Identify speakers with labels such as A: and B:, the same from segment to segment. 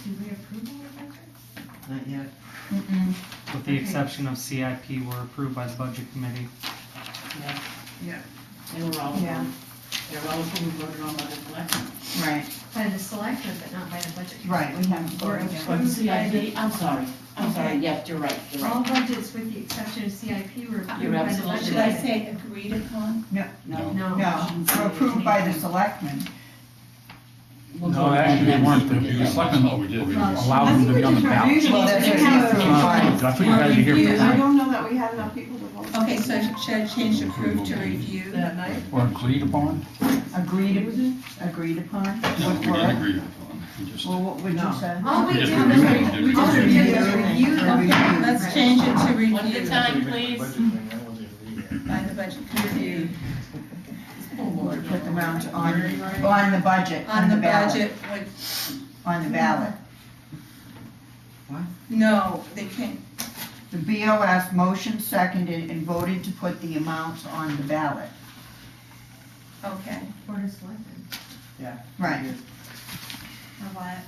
A: approval of metrics?
B: Not yet.
A: Mm-mm.
C: With the exception of CIP were approved by the budget committee.
D: Yeah.
B: Yeah.
D: They were all,
A: Yeah.
D: they were all approved, voted on by the collective.
A: Right,
E: By the selectmen, but not by the budget.
A: right, we haven't voted
D: But
A: yet.
E: Approved by
D: CIP, I'm sorry, I'm sorry, yes, you're right, you're
E: All
D: right.
E: budgets with the exception of CIP were approved
D: You're
E: by the
D: absolutely
E: budget.
D: Should I right.
A: say agreed upon?
D: No.
E: No.
A: No, or approved by the selectmen.
D: we'll
F: No,
D: vote
F: actually,
D: on
F: we
D: that.
F: weren't, the the selectmen, what oh, we did, we allowed
E: I
F: them
E: think
F: to be
E: we're
F: on the
E: just
F: ballot.
E: reviewing
A: Well,
E: it.
A: that's what
E: We
A: it
E: have
A: is.
E: to-
A: Right.
F: That's what you guys are here for.
G: I
F: tonight.
G: don't know that we had enough people to vote.
H: Okay, so should I change approve to review that night?
F: Or agreed upon,
A: Agreed, agreed upon?
F: we
A: What
F: didn't
A: were?
F: agree upon, we just,
A: Well, what would you
B: No.
A: say?
E: All we
F: We
E: do
F: just
E: is,
F: reviewed it,
E: re-
F: didn't
E: we just
F: we?
E: did
A: Yeah.
E: is review the
A: Okay.
H: Let's change it to review.
D: What's the time, please?
H: By the budget committee,
D: Oh,
A: Put the amount on, on the budget,
H: on the
A: ballot,
H: budget, what,
A: on the ballot.
H: no, they can't,
A: The BOS motion seconded and voted to put the amounts on the ballot.
H: okay.
E: Board of Selectmen.
A: Right.
H: Of what?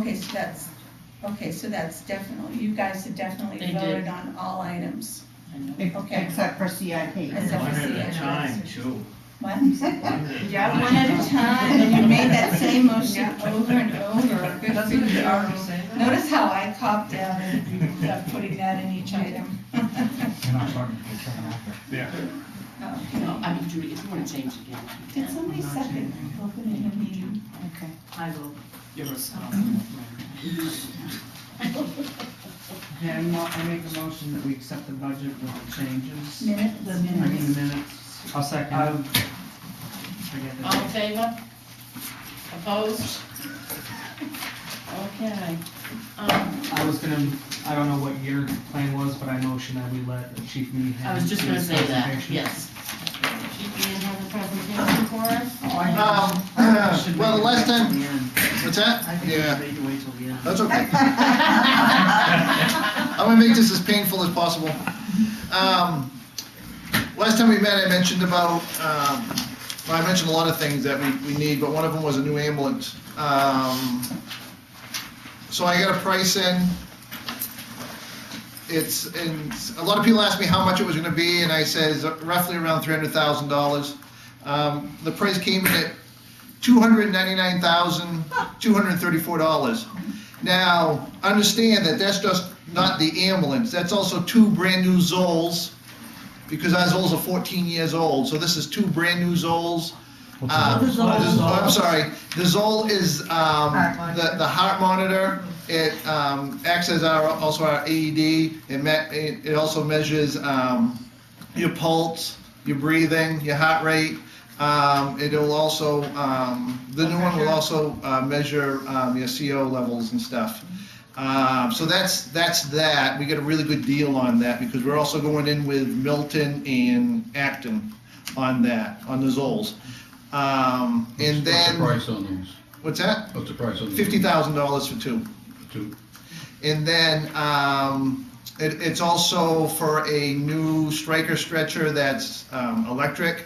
H: Okay, so that's, okay, so that's definitely, you guys have definitely
D: They did.
H: voted on all items.
A: Ex-
H: Okay.
A: Except for CIP.
H: Except for CIP.
I: too.
H: What?
G: Yeah,
H: One at a time, and you made that same motion
G: Yeah.
H: over and over. Good for
G: Doesn't
H: you.
G: it already say that?
H: Notice how I copped out and kept putting that in each item.
F: you know, starting to check it out.
H: Oh.
D: No, I mean, Judy, if you wanna change again.
H: Did somebody second opening a meeting?
D: I will give us.
B: um, Yeah, mo- I make a motion that we accept the budget with the changes.
H: Minutes?
B: I mean, the minutes
C: I'll second.
B: of, forget
D: All in
B: the,
D: favor? Opposed? Okay. Um,
C: I was gonna, I don't know what your plan was, but I motion that we let Chief Meehan.
D: I was just
C: do
D: gonna
C: his
D: say that,
C: presentation.
D: yes. Chief, you didn't have a presentation for us?
B: oh, I
I: Um,
B: should wait
I: well, the last
B: till
I: time,
B: the end.
I: what's
B: I
I: that?
B: think
I: Yeah,
B: I need to wait till the end.
I: that's okay. I'm gonna make this as painful as possible. Um, last time we met, I mentioned about, um, well, I mentioned a lot of things that we, we need, but one of them was a new ambulance. Um, so I got a price in. It's, and a lot of people asked me how much it was gonna be, and I says roughly around three hundred thousand dollars. Um, the price came in at two hundred ninety-nine thousand, two hundred thirty-four dollars. Now, understand that that's just not the ambulance, that's also two brand-new Zolls, because our Zolls are fourteen years old, so this is two brand-new Zolls. Uh,
B: What's a Zoll?
I: the- oh, I'm sorry, the Zoll is, um,
A: Heart
I: the,
A: monitor.
I: the heart monitor, it, um, acts as our, also our AED, it me, it, it also measures, um, your pulse, your breathing, your heart rate. Um, it'll also, um, the new one will also, uh, measure, um, your CO levels and stuff. Um, so that's, that's that. We got a really good deal on that because we're also going in with Milton and Acton on that, on the Zolls. Um, and then,
F: What's the price on those,
I: what's that?
F: what's the price on those?
I: Fifty thousand dollars for two.
F: Two.
I: And then, um, it, it's also for a new striker stretcher that's, um, electric,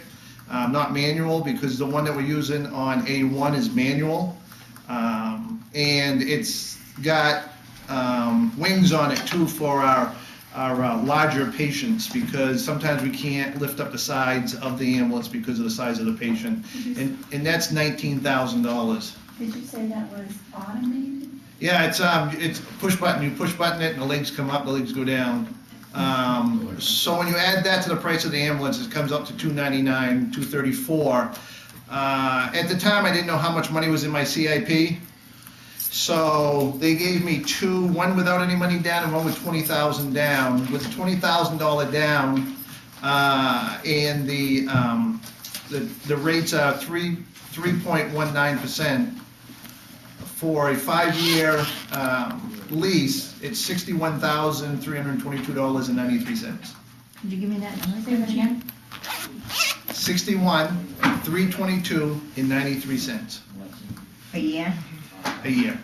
I: um, not manual, because the one that we're using on A1 is manual. Um, and it's got, um, wings on it too for our, our uh, larger patients, because sometimes we can't lift up the sides of the ambulance because of the size of the patient. And, and that's nineteen thousand dollars.
H: Did you say that was automated?
I: Yeah, it's, um, it's push button, you push button it and the legs come up, the legs go down. Um, so when you add that to the price of the ambulance, it comes up to two ninety-nine, two thirty-four. Uh, at the time, I didn't know how much money was in my CIP. So they gave me two, one without any money down and one with twenty thousand down. With the twenty thousand dollar down, uh, and the, um, the, the rates are three, three point one nine percent for a five-year um, lease, it's sixty-one thousand, three hundred and twenty-two dollars and ninety-three cents.
E: Could you give me that number? Say that again.
I: Sixty-one, three twenty-two and ninety-three cents
A: A year?
I: a year.